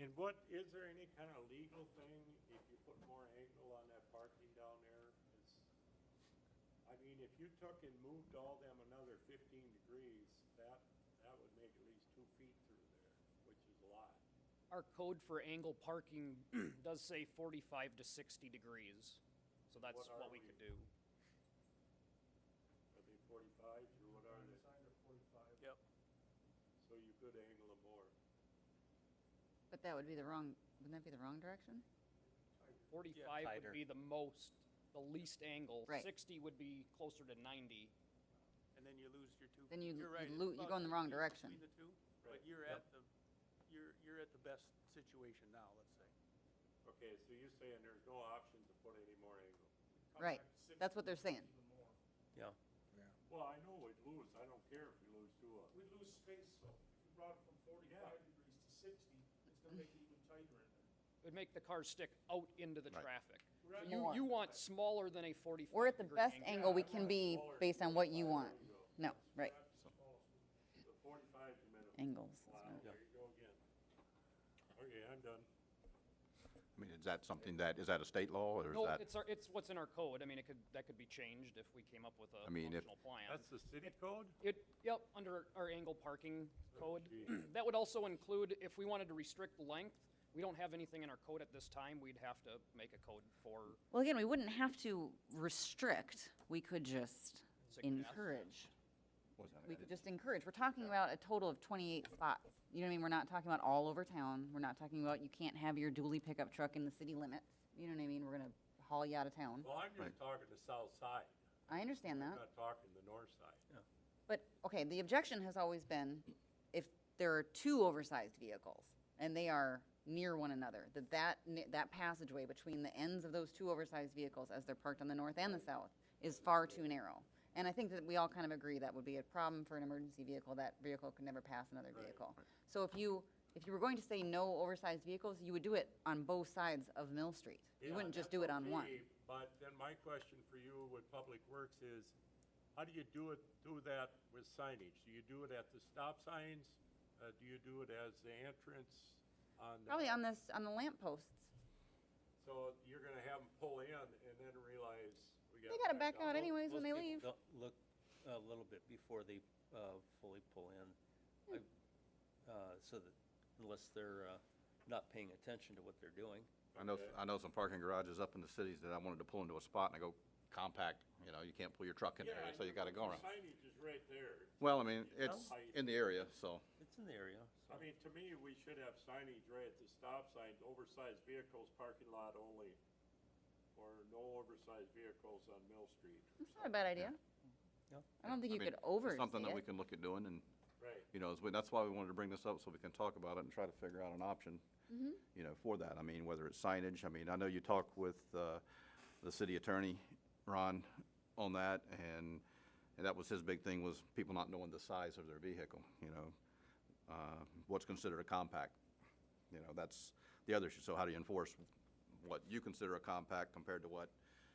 And what, is there any kind of legal thing if you put more angle on that parking down there? It's- I mean, if you took and moved all them another fifteen degrees, that, that would make at least two feet through there, which is a lot. Our code for angle parking does say 45 to 60 degrees, so that's What are what we we? could do. Are they forty-fives or what are they? Sign or forty-five. Yep. So you could angle them more. But that would be the wrong, wouldn't that be the wrong direction? 45 Tighter. would be the most, the least angle. Right. 60 would be closer to 90. And then you lose your two. Then you- You're you right, it's lo- you about go two in the wrong feet direction. Between the two, Right. but you're at the, you're, you're at the best situation now, let's say. Okay, so you're saying there's no option to put any more angle? Right, that's what they're saying. Yeah. Well, I know we'd lose, I don't care if we lose two of them. We lose space, so if you brought it from forty-five degrees to sixty, it's gonna make it even tighter in there. It would make the car stick out into the traffic. So Right. You, More. you want smaller than a 45 degree We're at the best angle we can be based on what you want. No, right, That's the smallest one. The forty-five's the minimum. angles. is Wow, what- there you go again. Okay, I'm done. I mean, is that something that, is that a state law or is No, that? it's, our- it's what's in our code. I mean, it could, that could be changed if we came up with a I mean, if- functional plan. the city code? It, yep, under our angle parking code. That would also include, if we wanted to restrict length, we don't have anything in our code at this time, we'd have to make a code for, Well, again, we wouldn't have to restrict, we could just Suggest. encourage. What's that? We could just encourage. We're talking about a total of 28 spots. You know what I mean? We're not talking about all over town. We're not talking about you can't have your dually pickup truck in the city limits. You know what I mean? We're gonna haul you out of town. Well, I'm just talking the south side, I understand I'm that. not talking the north side. But, okay, the objection has always been if there are two oversized vehicles and they are near one another, that that, ne- that passageway between the ends of those two oversized vehicles as they're parked on the north and the south is far too narrow. And I think that we all kind of agree that would be a problem for an emergency vehicle. That vehicle could never pass another vehicle. So if you, if you were going to say no oversized vehicles, you would do it on both sides of Mill Street. You Yeah, wouldn't just that's do it on okay, one. But then my question for you with Public Works is, how do you do it, do that with signage? Do you do it at the stop signs? Uh, do you do it as the entrance on? the- Probably on this, on the lamp posts. So you're gonna have them pull in and then realize we got. They gotta back out down. anyways when Most they leave. people don't Look a little bit before they uh, fully pull in, Hmm. I- uh, so that, unless they're uh, not paying attention to what they're doing. I know, I know some parking garages up in the cities that I wanted to pull into a spot and I go, compact, you know, you can't pull your truck in Yeah, there, so you gotta go the around. Signage is right there. Well, I mean, it's Height. in the area, so, It's in the area, so. I mean, to me, we should have signage right at the stop sign, oversized vehicles, parking lot only, or no oversized vehicles on Mill Street. It's not a bad idea. Yeah. I don't think I you mean, could it's overstate it. something that we can look at doing and, Right. you know, it's- that's why we wanted to bring this up, so we can talk about it and try to figure out an option, you know, for that. I mean, whether it's signage, I mean, I know you talked with uh, the city attorney, Ron, on that, and, and that was his big thing, was people not knowing the size of their vehicle, you know? Uh, What's considered a compact? You know, that's the other issue, so how do you enforce what you consider a compact compared to what,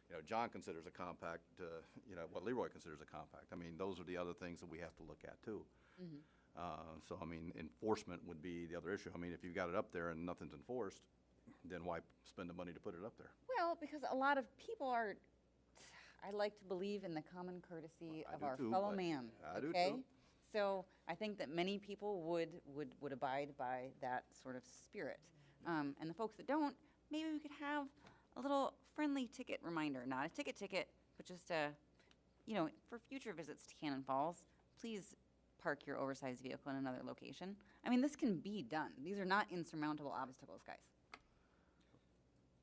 you know, John considers a compact, uh, you know, what Leroy considers a compact? I mean, those are the other things that we have to look at, too. Uh, So, I mean, enforcement would be the other issue. I mean, if you've got it up there and nothing's enforced, then why spend the money to put it up there? Well, because a lot of people are, I like to believe in the common courtesy I of do our too, fellow but- man. I do okay? too. So I think that many people would, would, would abide by that sort of spirit. Um, and the folks that don't, maybe we could have a little friendly ticket reminder, not a ticket ticket, but just a, you know, for future visits to Cannon Falls, please park your oversized vehicle in another location. I mean, this can be done. These are not insurmountable obstacles, guys.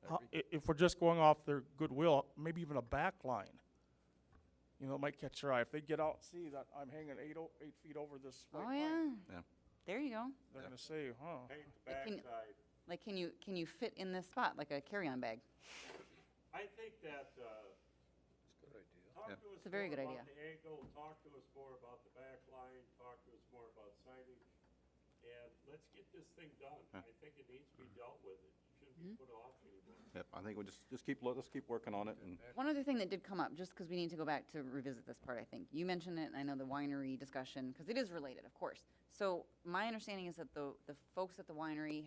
Uh, i- If we're just going off their goodwill, maybe even a back line. You know, it might catch their eye. If they get out, and see that I'm hanging eight, o- eight feet over this white Oh, line, yeah. Yeah. There you go. they're gonna say, huh. Paint the can- backside. Like, can you can you fit in this spot like a carry-on bag? I think that, uh. It's a good idea. Yeah. Talk to us. It's a very more good about idea. The angle, talk to us more about the back line, talk to us more about signage, and let's get this thing done. I think it needs to be dealt with. It shouldn't Mm-hmm. be put off anymore. Yep, I think we just, just keep, lo- let's keep working on it and, One other thing that did come up, just because we need to go back to revisit this part, I think you mentioned it, and I know the winery discussion because it is related, of course. So my understanding is that the the folks at the winery